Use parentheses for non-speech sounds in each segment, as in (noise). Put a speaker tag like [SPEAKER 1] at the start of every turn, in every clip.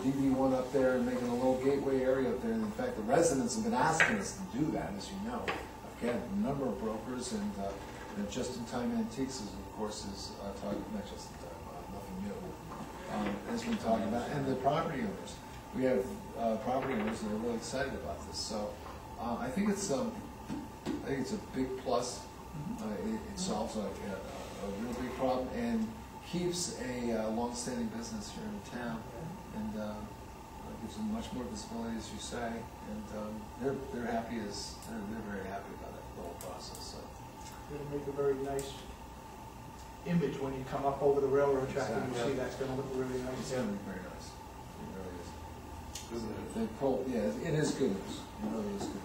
[SPEAKER 1] DB one up there and making a little gateway area up there, and in fact, the residents have been asking us to do that, as you know. Again, a number of brokers and, uh, and just-in-time antiques is, of course, is, uh, talking, not just-in-time, uh, nothing new. Um, has been talking about, and the property owners, we have, uh, property owners that are really excited about this, so, uh, I think it's, um, I think it's a big plus. Uh, it, it solves a, a, a real big problem and keeps a uh, longstanding business here in town. And, uh, it gives them much more visibility, as you say, and, um, they're, they're happy as, they're, they're very happy about that whole process, so.
[SPEAKER 2] It'll make a very nice image when you come up over the railroad track and you see
[SPEAKER 1] Exactly.
[SPEAKER 2] that's gonna look really
[SPEAKER 1] It's
[SPEAKER 2] nice.
[SPEAKER 1] gonna be very nice, it really is.
[SPEAKER 3] Isn't
[SPEAKER 1] They pull, yeah, it is good news, it really is good news.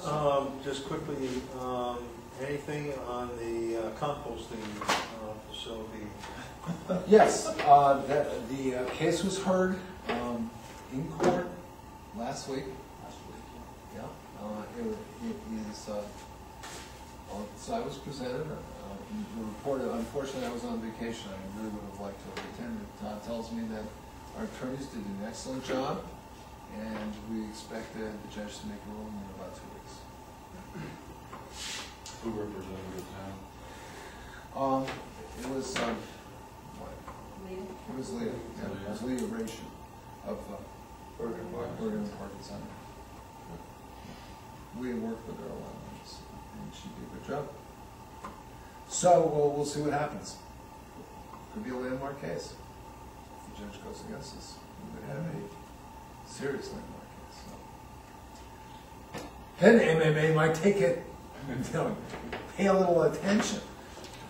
[SPEAKER 1] So,
[SPEAKER 3] Um, just quickly, um, anything on the uh, composting uh, facility?
[SPEAKER 1] Yes, uh, that, the uh, case was heard, um, in court last week. Last week. Yeah, uh, it, wa- it is, uh, well, so I was presented, uh, the report, unfortunately, I was on vacation, I really would have liked to have attended. Todd tells me that our attorneys did an excellent job, and we expect the the judge to make a ruling in about two weeks.
[SPEAKER 4] Who represented the town?
[SPEAKER 1] Um, it was, um, what,
[SPEAKER 5] Leave it.
[SPEAKER 1] It was Leah, yeah, it was Leah Ration of uh, Bergen Bergen Parking Center. We had worked with her a lot, and s- and she did a good job. So, we'll, we'll see what happens. Could be a landmark case. If the judge goes against us, we would have a serious landmark case, so. Then MMA might take it, (laughs) and tell him, pay a little attention.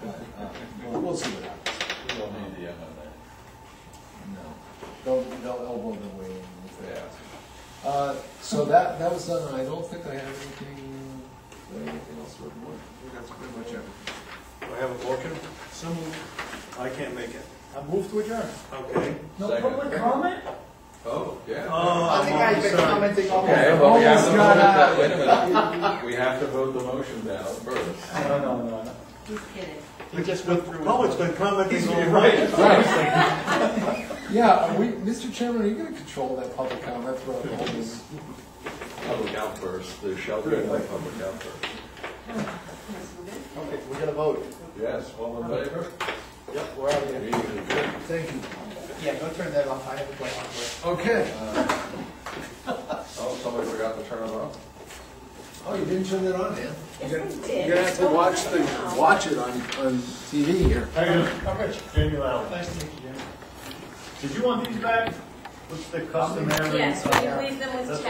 [SPEAKER 1] But, uh, we'll- we'll see what happens.
[SPEAKER 4] We don't need the MMA.
[SPEAKER 1] No, they'll, they'll elbow their way in if they have to. Uh, so that, that was done, and I don't think I have anything, anything else for the board. I think that's pretty much everything.
[SPEAKER 3] Do I have a motion?
[SPEAKER 2] Some,
[SPEAKER 3] I can't make it.
[SPEAKER 2] I move to adjourn.
[SPEAKER 3] Okay.
[SPEAKER 2] No
[SPEAKER 4] Second.
[SPEAKER 2] public comment?
[SPEAKER 4] Oh, yeah.
[SPEAKER 3] Oh,
[SPEAKER 2] I think
[SPEAKER 3] I'm
[SPEAKER 2] I've been
[SPEAKER 3] sorry.
[SPEAKER 2] commenting all
[SPEAKER 4] Okay,
[SPEAKER 2] over.
[SPEAKER 4] well, we have to
[SPEAKER 1] Almost
[SPEAKER 4] vote
[SPEAKER 1] got
[SPEAKER 4] that,
[SPEAKER 1] out.
[SPEAKER 4] wait a minute. We have to vote the motion down first.
[SPEAKER 2] No, no, no, no.
[SPEAKER 5] He's kidding.
[SPEAKER 2] He just went through.
[SPEAKER 3] Public's been commenting all night.
[SPEAKER 1] Right. Yeah, are we, Mr. Chairman, are you gonna control that public comment throughout the whole meeting?
[SPEAKER 4] Public out first, there shall be no public out first.
[SPEAKER 5] Yes, we're good.
[SPEAKER 2] Okay, we're gonna vote.
[SPEAKER 4] Yes, all in favor?
[SPEAKER 2] Yep, we're out of here.
[SPEAKER 4] Meeting is adjourned.
[SPEAKER 1] Thank you.
[SPEAKER 2] Yeah, go turn that off, I have a question.
[SPEAKER 1] Okay,
[SPEAKER 4] Oh, somebody forgot to turn it off.
[SPEAKER 1] oh, you didn't turn that on, man.
[SPEAKER 5] Yes,
[SPEAKER 1] You're
[SPEAKER 5] we
[SPEAKER 1] gonna-
[SPEAKER 5] did.
[SPEAKER 1] You're gonna have to watch the, watch it on, on TV here.
[SPEAKER 2] I'm Rich.
[SPEAKER 6] Jamie Lowry,
[SPEAKER 2] Nice to meet you, Jim.
[SPEAKER 6] did you want these back? What's the customary?
[SPEAKER 5] Yes, will you leave them with